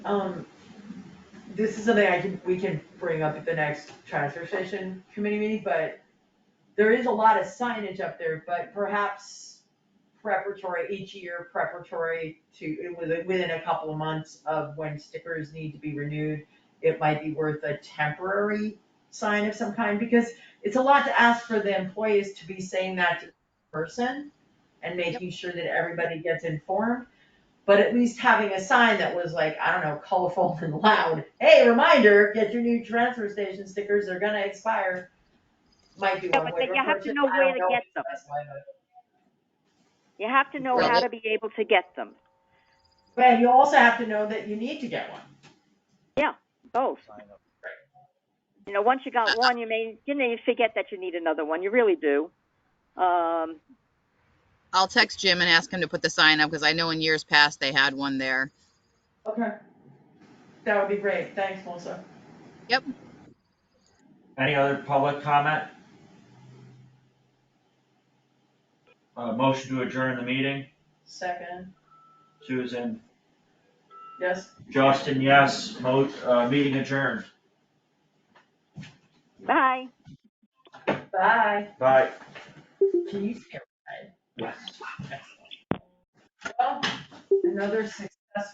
Um, this is something I can, we can bring up at the next transfer station committee meeting, but there is a lot of signage up there, but perhaps preparatory, each year preparatory to, within, within a couple of months of when stickers need to be renewed, it might be worth a temporary sign of some kind, because it's a lot to ask for the employees to be saying that to the person and making sure that everybody gets informed. But at least having a sign that was like, I don't know, colorful and loud, hey, reminder, get your new transfer station stickers, they're gonna expire. Might be Yeah, one way but to then you have approach to it, know I where don't to know get if them. that's why, but- You have to know Well, how it- to be able to get them, But you also have to know that you need to get one. both. You know, once you got one, you may, you know, you forget that you need another one, you really do. Um, I'll text Jim and ask him to put the sign up because I know in years past they had one there. Okay. That would be great, thanks, Melissa. Any other public comment? Uh, motion to adjourn the meeting, Second, Susan, yes? Justin, yes, mo, uh, meeting adjourned, bye. Bye. bye. Can you see everybody? Well, Oh, another six